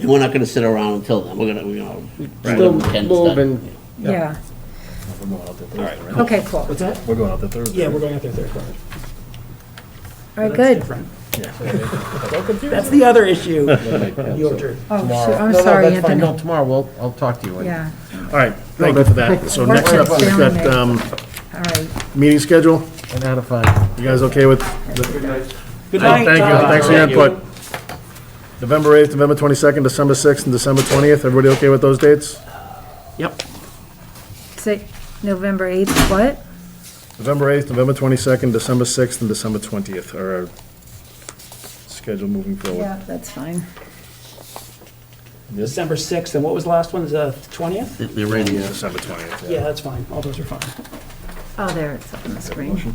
And we're not gonna sit around until then, we're gonna, we're gonna. Right. do what we can to Move start. and- yeah, We're going out there Thursday, right? okay, cool. All What's that? We're going out there Thursday. Yeah, we're going out there Thursday. right, That's good. different. Yeah. Don't confuse- That's the other issue. Your turn. Oh, Tomorrow. shoot, I'm No, no, sorry, that's fine. No, Anthony. tomorrow, we'll, I'll talk to you. later. Yeah, All right, thank you for that. So Work next up, with we've Sam got there. um, all right. meeting schedule. And how to find. You guys okay with? the- Good night. Thank you, Tom. thanks for your input. November 8th, November 22nd, December 6th, and December 20th. Everybody okay with those dates? Yep. Say, November 8th, what? November 8th, November 22nd, December 6th, and December 20th are our schedule moving forward. Yeah, that's fine. December 6th, and what was the last one, the 20th? The- The radio. December 20th, Yeah, yeah. that's fine, all those are fine. Oh, there, it's up on the screen.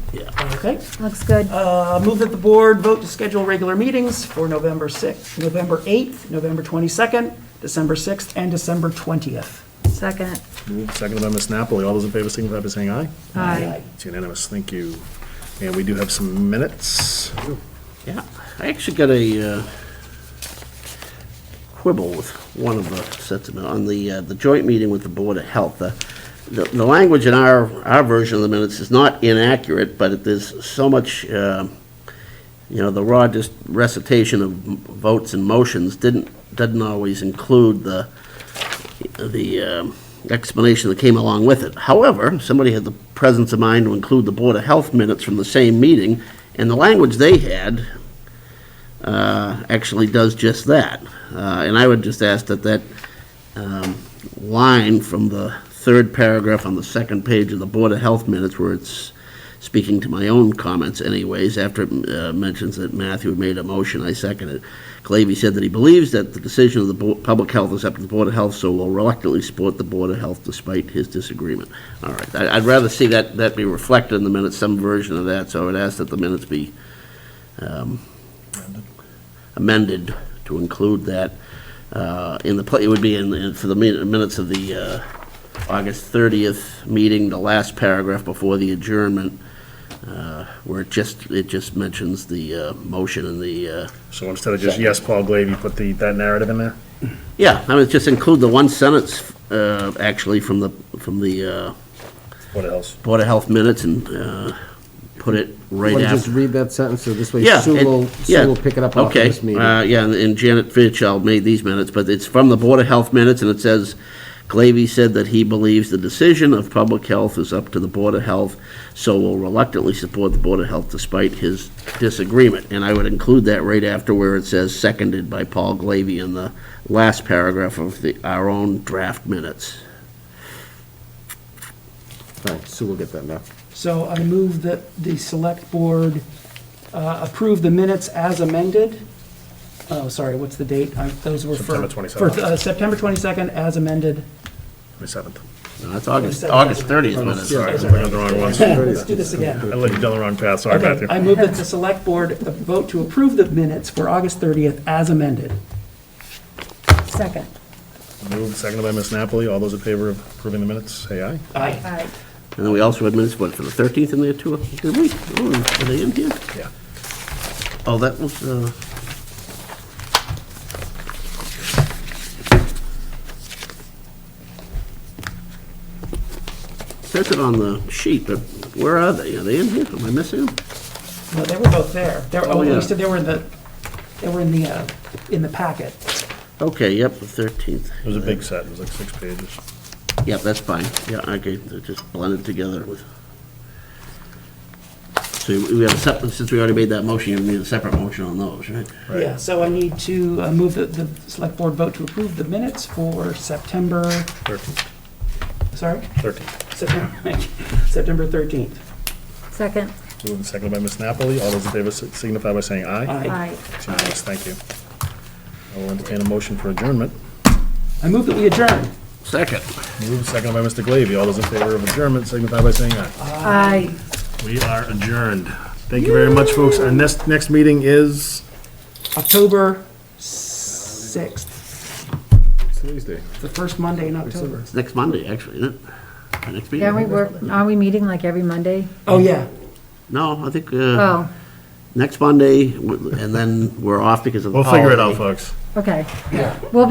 Okay. Looks good. Oh. Uh, Move that the board vote to schedule regular meetings for November 6th, November 8th, November 22nd, December 6th, and December 20th. Second, Moved, Seconded by Ms. Napoli. All those in favor signify by saying aye. aye. It's unanimous, thank you. And we do have some minutes. Yeah, I actually got a uh, quibble with one of the sentiment on the, uh, the joint meeting with the Board of Health. The, the the language in our, our version of the minutes is not inaccurate, but it- there's so much, um, you know, the raw just recitation of m- votes and motions didn't, doesn't always include the, the um, explanation that came along with it. However, somebody had the presence of mind to include the Board of Health minutes from the same meeting, and the language they had uh, actually does just that. Uh, And I would just ask that that um, line from the third paragraph on the second page of the Board of Health minutes, where it's speaking to my own comments anyways, after it uh, mentions that Matthew had made a motion, I second it. Glavy said that he believes that the decision of the Bo- Public Health is up to the Board of Health, so will reluctantly support the Board of Health despite his disagreement. All right, I- I'd rather see that, that be reflected in the minutes, some version of that, so I would ask that the minutes be um, amended to include that uh, in the, pla- it would be in- in, for the min- minutes of the uh, August 30th meeting, the last paragraph before the adjournment, uh, where it just, it just mentions the uh, motion and the, uh, So instead of just, yes, Paul Glaive, you put the, that narrative in there? yeah, I would just include the one sentence, uh, actually, from the, from the uh, What else? Board of Health minutes and uh, put it right Want to just after. read that sentence, so this way Yeah. Sue it- will, yeah, Sue will pick it up off of okay, this meeting. uh, yeah, and- and Janet Fairchild made these minutes, but it's from the Board of Health minutes, and it says, Glavy said that he believes the decision of public health is up to the Board of Health, so will reluctantly support the Board of Health despite his disagreement. And I would include that right after where it says seconded by Paul Glavy in the last paragraph of the, our own draft minutes. Fine, Sue will get that now. So I move that the select board uh, approve the minutes as amended. Oh, sorry, what's the date? I- Those were for. September 22nd. for, uh, September 22nd as amended. May 7th. No, Uh, That's August, August 30th minutes. Sorry, I'm looking at the wrong ones. I Let's do this again. led you down the wrong path, sorry, Okay, Matthew. I move that the select board vote to approve the minutes for August 30th as amended. Second, Moved, seconded by Ms. Napoli. All those in favor of approving the minutes, say aye. Aye. aye. And then we also had minutes, what, for the 13th in there too? Did we? Oh, Are they in here? Yeah. Oh, that was, uh... Says it on the sheet, but where are they? Are they in here? Am I missing them? No, they were both there. They were, Oh, oh, at yeah. least they were in the, they were in the, uh, in the packet. Okay, yep, the 13th. It was a big set, it was like six pages. Yep, that's fine. Yeah, okay, they're just blended together with... So we have a separate, since we already made that motion, you need a separate motion on those, right? Right. Yeah, so I need to uh, move that the select board vote to approve the minutes for September, Thirteenth. sorry? Thirteenth. September September 13th. Second, Moved and seconded by Ms. Napoli. All those in favor si- signify by saying aye. Aye. aye. It's unanimous. Thank you. I will entertain a motion for adjournment. I move that we adjourn. Second. Moved, seconded by Mr. Glavy. All those in favor of adjournment signify by saying aye. Aye. We are adjourned. Thank you very much, folks. Our next, next meeting is? October 6th, Tuesday. the first Monday in October. It's next Monday, actually, isn't it? Our next meeting? Yeah, we work, are we meeting like every Monday? Oh, yeah. No, I think, Mm-hmm. uh, Oh, next Monday, w- and then we're off because of the We'll figure it holiday. out, folks. okay.